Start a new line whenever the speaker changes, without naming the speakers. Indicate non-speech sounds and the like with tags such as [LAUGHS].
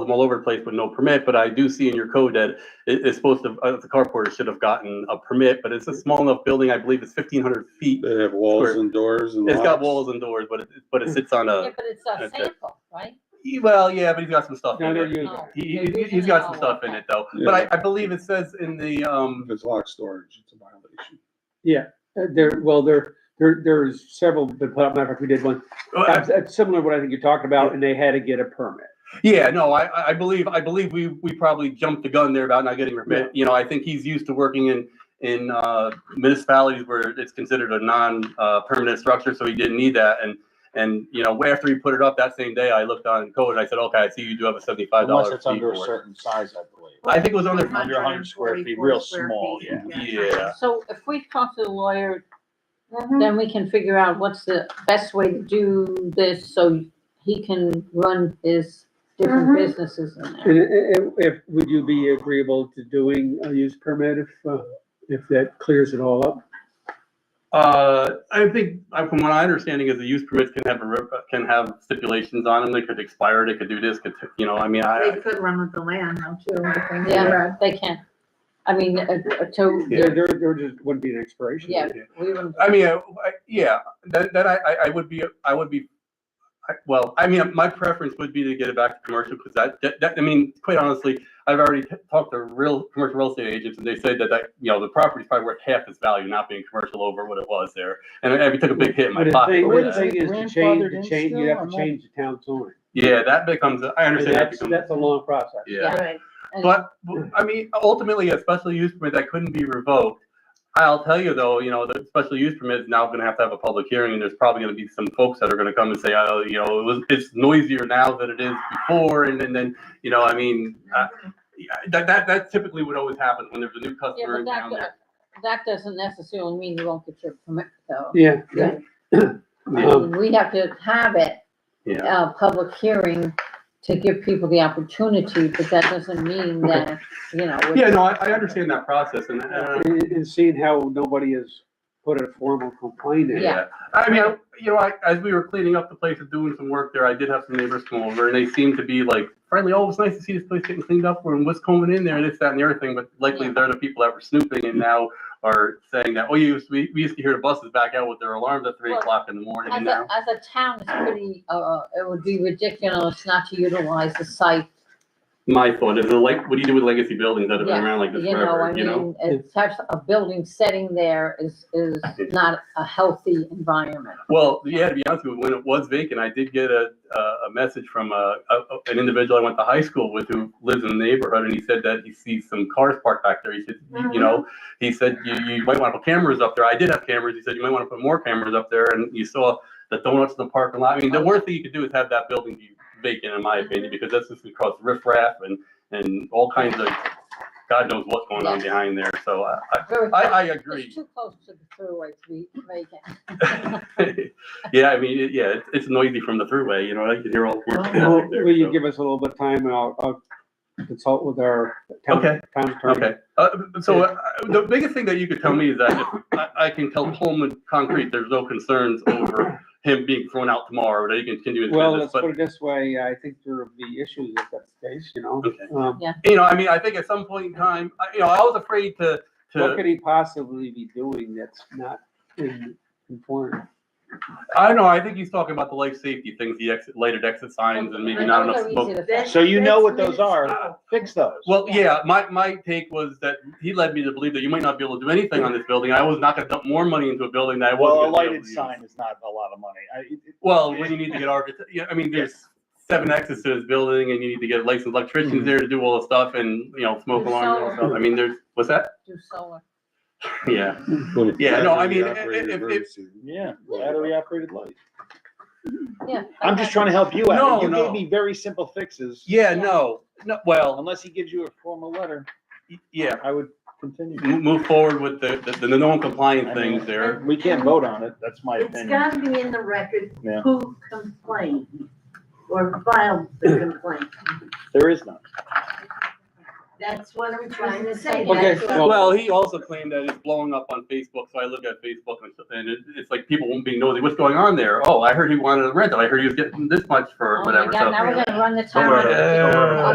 them all over the place with no permit, but I do see in your code that it, it's supposed to, uh, the carport should have gotten a permit, but it's a small enough building, I believe it's fifteen hundred feet.
They have walls
Square.
and doors and.
It's got
locks.
walls and doors, but it, but it sits on
Yeah,
a,
but it's a
Okay.
sample, right?
well, yeah, but he's got some stuff
No,
in
they're
it.
using
Oh.
He, he- he's got some stuff in it though, but I, I believe it says in the, um,
If it's locked storage, it's a violation.
Yeah, uh, there, well, there, there, there's several, but matter of fact, we did one. That's, that's similar to what I think you're talking about, and they had to get a permit.
Yeah, no, I- I, I believe, I believe we, we probably jumped the gun there about not getting permit. You know, I think he's used to working in, in uh, municipalities where it's considered a non-permanent structure, so he didn't need that. And, and, you know, after he put it up that same day, I looked on code and I said, okay, I see you do have a seventy-five
Unless
dollar
it's
fee
under a
for it.
certain size, I believe.
I think it was under,
Under hundred square feet, real small, yeah.
yeah,
So if we talk to the lawyer,
That-
then we can figure out what's the best way to do this so he can run his different
Mhm.
businesses in there.
And, and- and if, would you be agreeable to doing a use permit if, uh, if that clears it all up?
uh, I think, I- from what I understanding is the use permits can have, a re- can have stipulations on them. They could expire, they could do this, could, you know, I mean, I,
They could run with the land now too. I think.
Yeah, they can. I mean, uh, uh, to,
There, there, there just wouldn't be an expiration.
yeah, we would.
I mean, I, I- yeah, then, then I, I- I would be, I would be, I- well, I mean, my preference would be to get it back to commercial, because that, that- that, I mean, quite honestly, I've already t- talked to real, commercial real estate agents, and they said that, that, you know, the property's probably worth half its value not being commercial over what it was there, and I, I took a big hit in
But
my
the
pocket
thing,
with
the
that.
thing is to change, to change, you have to change the town zoning.
Yeah, that becomes, a- I
And
understand that
that's,
becomes.
that's a long process.
Yeah.
Right.
and-
But, I mean, ultimately, a special use permit that couldn't be revoked. I'll tell you though, you know, the special use permit is now gonna have to have a public hearing, and there's probably gonna be some folks that are gonna come and say, oh, you know, it was, it's noisier now than it is before, and then, then, you know, I mean, uh, yeah, that, that, that typically would always happen when there's a new
Yeah,
customer
but
in
that,
town there.
do- that doesn't necessarily mean you won't get your permit though.
Yeah.
Yeah. I
Um,
mean, We have to have it,
Yeah.
uh, public hearing to give people the opportunity, but that doesn't mean
Okay.
that, you know. we-
Yeah, no, I, I understand that process, and, uh,
And, and seeing how nobody has put a formal complaint in.
Yeah.
Yeah, I mean, I- you know, I, as we were cleaning up the place and doing some work there, I did have some neighbors come over and they seemed to be like friendly, oh, it's nice to see this place getting cleaned up and what's coming in there and this, that and the other thing, but likely
Yeah.
they're the people that were snooping and now are saying that, oh, you, used- we, we used to hear the buses back out with their alarms at three
Well,
o'clock in the morning
As
and
a,
now.
as a town, it's pretty, uh, it would be ridiculous not to utilize the site,
My thought is, like, what do you do with legacy buildings that have been
Yeah,
around like
you
this
know, I
forever, you know?
mean, it's such a building setting there is, is not a healthy environment.
Well, yeah, to be honest with you, when it was vacant, I did get a, a a message from a, a- an individual I went to high school with who lives in the neighborhood, and he said that he sees some cars parked back there. He said, you- you know, he said, you, you might want to put cameras up there. I did have cameras. He said, you might want to put more cameras up there, and you saw the donuts in the parking lot. I mean, the worst thing you could do is have that building be vacant, in my opinion, because that's just gonna cause riffraff and, and all kinds of, God knows what's going on behind there, so I, I-
Very-
I, I agree.
It's too close to the thruway to be vacant.
[LAUGHS] yeah, I mean, it- yeah, it's, it's noisy from the throughway. You know, I can hear all. sorts of stuff
Well,
right there,
will you
so.
give us a little bit of time, and I'll, I'll consult with our town,
Okay.
town attorney.
Okay. Uh, so uh, the biggest thing that you could tell me is that if I, I can tell Pullman Concrete there's no concerns over him being thrown out tomorrow, that he can continue his
Well,
business.
let's
But
put it this way, I think there will be issues if that's the case, you know?
Okay.
Um,
you know, I mean, I think at some point in time, I, you know, I was afraid to
What
to.
could he possibly be doing that's not in conformity?
I don't know. I think he's talking about the life safety things, the exit lighted exit signs, and maybe
I
not
know
enough
they're
smoke.
easy to
That-
fix.
So you know what
that's
those are,
minutes.
fix those.
Well, yeah, my, my take was that he led me to believe that you might not be able to do anything on this building. I was not gonna dump more money into a building that I wasn't.
Well, a
gonna be able
lighted
to use.
sign is not a lot of money. I, it- it-
Well, when you need
[LAUGHS]
to get architect, yeah, I mean, there's seven exits to this building and you need to get licensed electricians
Mhm.
there to do all the stuff and, you know, smoke
Do
alarms and all
solar.
stuff. I mean, there's, what's that? [LAUGHS]
Do solar.
Yeah. Yeah, no, I mean, i- i-
Battery-operated
if- if-
emergency.
yeah, battery operated lights.
Yeah.
I'm just trying to help you
No,
out. You
no.
gave me very simple fixes.
Yeah, no, no, well,
Unless he gives you a formal letter,
yeah,
I would continue.
Mo- move forward with the, the, the non-compliant
I mean-
things there.
We can't vote on it. That's my
It's
opinion.
gotta be in the record
Yeah.
who complained or filed the complaint.
There is none.
That's what I'm trying to say.
Okay,
That's what-
Well-
Well, he also claimed that it's blowing up on Facebook, so I look at Facebook and stuff, and it, it's like people won't be nosy, what's going on there? Oh, I heard he wanted to rent it, I heard he was getting this much for
Oh my
whatever,
God,
so.
now we're gonna run the
Don't
town.
worry.
Oh,